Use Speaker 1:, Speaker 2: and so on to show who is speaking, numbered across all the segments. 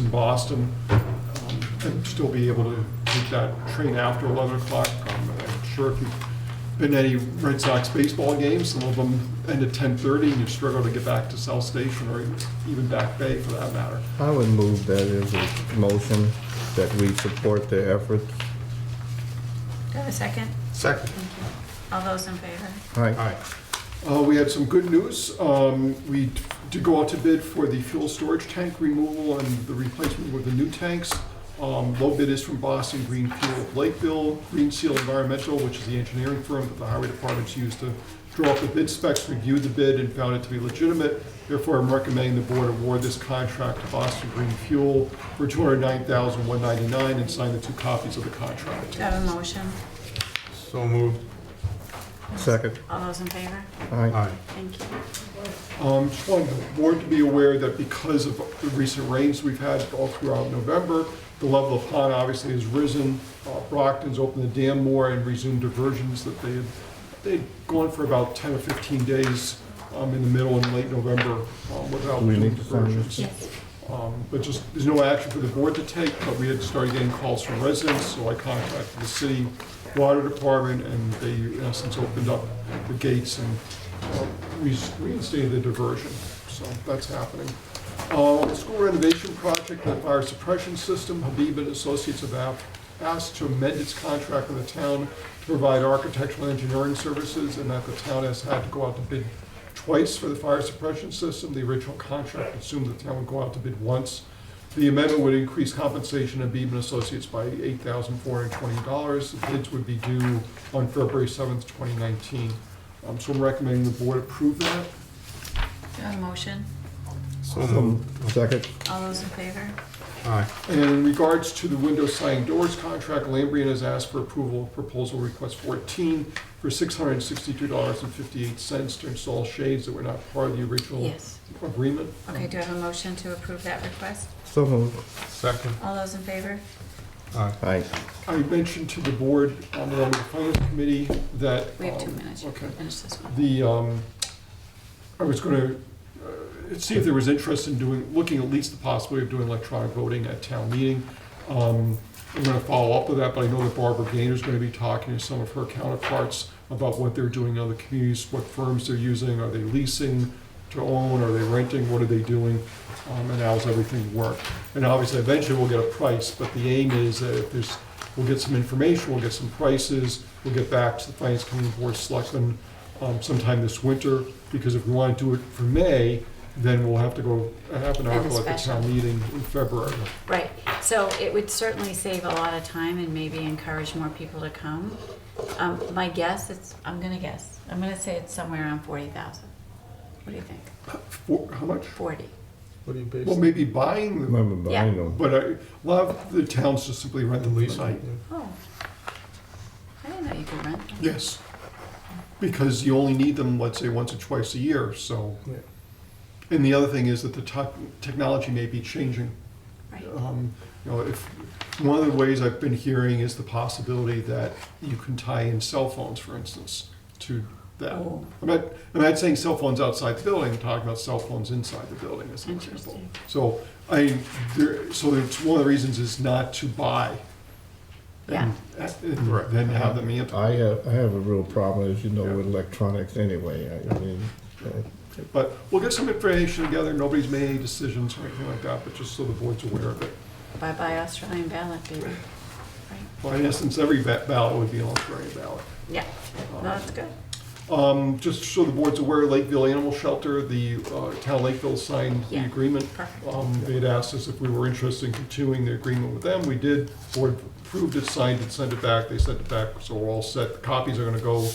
Speaker 1: in Boston, um, and still be able to take that train after 11 o'clock. Um, I'm sure if you've been to any Red Sox baseball games, some of them end at 10:30, and you struggle to get back to South Station or even Back Bay for that matter.
Speaker 2: I would move that as a motion that we support the efforts.
Speaker 3: Do I have a second?
Speaker 4: Second.
Speaker 3: Thank you. All those in favor?
Speaker 2: Aye.
Speaker 1: Uh, We had some good news. Um, We did go out to bid for the fuel storage tank removal and the replacement with the new tanks. Um, Low bid is from Boston Green Fuel of Lakeville, Green Seal Environmental, which is the engineering firm that the highway department's used to draw up the bid specs, reviewed the bid, and found it to be legitimate. Therefore, I'm recommending the board award this contract to Boston Green Fuel for $209,199 and sign the two copies of the contract.
Speaker 3: Do I have a motion?
Speaker 4: So moved.
Speaker 2: Second.
Speaker 3: All those in favor?
Speaker 2: Aye.
Speaker 4: Aye.
Speaker 3: Thank you.
Speaker 1: Um, Just wanted the board to be aware that because of the recent rains we've had all throughout November, the level of pond obviously has risen. Uh, Brockton's opened the dam more and resumed diversions that they had, they'd gone for about 10 or 15 days um, in the middle and late November um, without
Speaker 2: We
Speaker 1: doing
Speaker 2: need to sign this.
Speaker 1: diversions.
Speaker 3: Yes.
Speaker 1: Um, But just, there's no action for the board to take, but we had started getting calls from residents, so I contacted the city water department, and they, in essence, opened up the gates and uh, re- reinstated the diversion. So that's happening. Uh, School renovation project, the fire suppression system, Habib and Associates have af- asked to amend its contract with the town to provide architectural engineering services, and that the town has had to go out to bid twice for the fire suppression system. The original contract assumed the town would go out to bid once. The amendment would increase compensation of Beeben Associates by $8,420. The bids would be due on February 7th, 2019. Um, So I'm recommending the board approve that.
Speaker 3: Do I have a motion?
Speaker 4: So
Speaker 2: Um,
Speaker 4: moved.
Speaker 2: Second.
Speaker 3: All those in favor?
Speaker 4: Aye.
Speaker 1: And in regards to the window sign doors contract, Lambrian has asked for approval of proposal request 14 for $662.58 to install shades that were not part of the original
Speaker 3: Yes.
Speaker 1: agreement.
Speaker 3: Okay, do I have a motion to approve that request?
Speaker 2: So moved.
Speaker 4: Second.
Speaker 3: All those in favor?
Speaker 4: Aye.
Speaker 2: Aye.
Speaker 1: I mentioned to the board on the finance committee that.
Speaker 3: We have two
Speaker 1: um,
Speaker 3: minutes. You
Speaker 1: Okay.
Speaker 3: can finish this one.
Speaker 1: The, um, I was gonna, uh, see if there was interest in doing, looking at least the possibility of doing electronic voting at town meeting. Um, I'm gonna follow up with that, but I know that Barbara Gaynor's gonna be talking to some of her counterparts about what they're doing in other communities, what firms they're using, are they leasing to own, are they renting, what are they doing? Um, and how's everything work? And obviously, eventually, we'll get a price, but the aim is that if there's, we'll get some information, we'll get some prices, we'll get back to the finance committee board of selectmen um, sometime this winter, because if we want to do it for May, then we'll have to go, have an
Speaker 3: Have a
Speaker 1: article at the
Speaker 3: special.
Speaker 1: town meeting in February.
Speaker 3: Right, so it would certainly save a lot of time and maybe encourage more people to come. Um, my guess, it's, I'm gonna guess, I'm gonna say it's somewhere around forty thousand. What do you think?
Speaker 1: For, how much?
Speaker 3: Forty?
Speaker 4: What do you base?
Speaker 1: Well, maybe buying them,
Speaker 2: Remember behind them.
Speaker 1: but I, a lot of the towns just simply rent
Speaker 4: The
Speaker 1: them for the
Speaker 4: lease.
Speaker 1: night.
Speaker 3: Oh. I didn't know you could rent them.
Speaker 1: Yes, because you only need them, let's say, once or twice a year, so.
Speaker 4: Yeah.
Speaker 1: And the other thing is that the tech, technology may be changing.
Speaker 3: Right.
Speaker 1: Um, You know, if, one of the ways I've been hearing is the possibility that you can tie in cell phones, for instance, to that.
Speaker 3: Oh.
Speaker 1: I'm not, I'm not saying cell phones outside the building, I'm talking about cell phones inside the building as an example.
Speaker 3: Interesting.
Speaker 1: So I, there, so it's one of the reasons is not to buy. and-
Speaker 4: Right.
Speaker 1: And then have them amped.
Speaker 2: I have, I have a real problem, as you know, with electronics anyway. I- I mean, uh,
Speaker 1: But we'll get some information together, nobody's made any decisions or anything like that, but just so the board's aware of it.
Speaker 3: Bye-bye Australian ballot, baby. Right.
Speaker 1: Well, in essence, every ba- ballot would be an Australian ballot.
Speaker 3: Yeah, no, that's good.
Speaker 1: Um, just so the board's aware, Lakeville Animal Shelter, the, uh, town of Lakeville signed the
Speaker 3: Yeah.
Speaker 1: agreement.
Speaker 3: Perfect.
Speaker 1: Um, they had asked us if we were interested in continuing the agreement with them, we did, board approved it, signed it, sent it back, they sent it back, so we're all set. The Copies are gonna go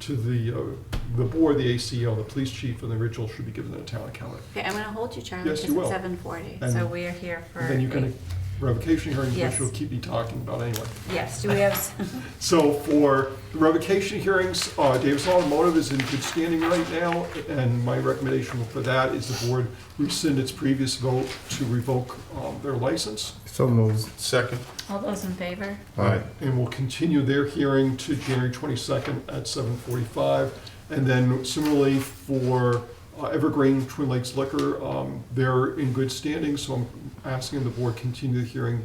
Speaker 1: to the, uh, the board, the ACO, the police chief, and the original should be given to the town accountant.
Speaker 3: Okay, I'm gonna hold you, Charlie,
Speaker 1: Yes,
Speaker 3: because
Speaker 1: you
Speaker 3: it's
Speaker 1: will.
Speaker 3: seven forty, so
Speaker 1: And-
Speaker 3: we are here for.
Speaker 1: And then you
Speaker 3: eight.
Speaker 1: can, revocation hearings, which
Speaker 3: Yes.
Speaker 1: we'll keep you talking about anyway.
Speaker 3: Yes, do we have, s-
Speaker 1: So for the revocation hearings, uh, Davis Automotive is in good standing right now, and my recommendation for that is the board rescind its previous vote to revoke um, their license,
Speaker 2: So moved.
Speaker 4: Second.
Speaker 3: all those in favor?
Speaker 2: Aye.
Speaker 1: and we will continue their hearing to January 22nd at 7:45. And then similarly for uh, Evergreen Twin Lakes Liquor. Um, They're in good standing, so I'm asking the board continue the hearing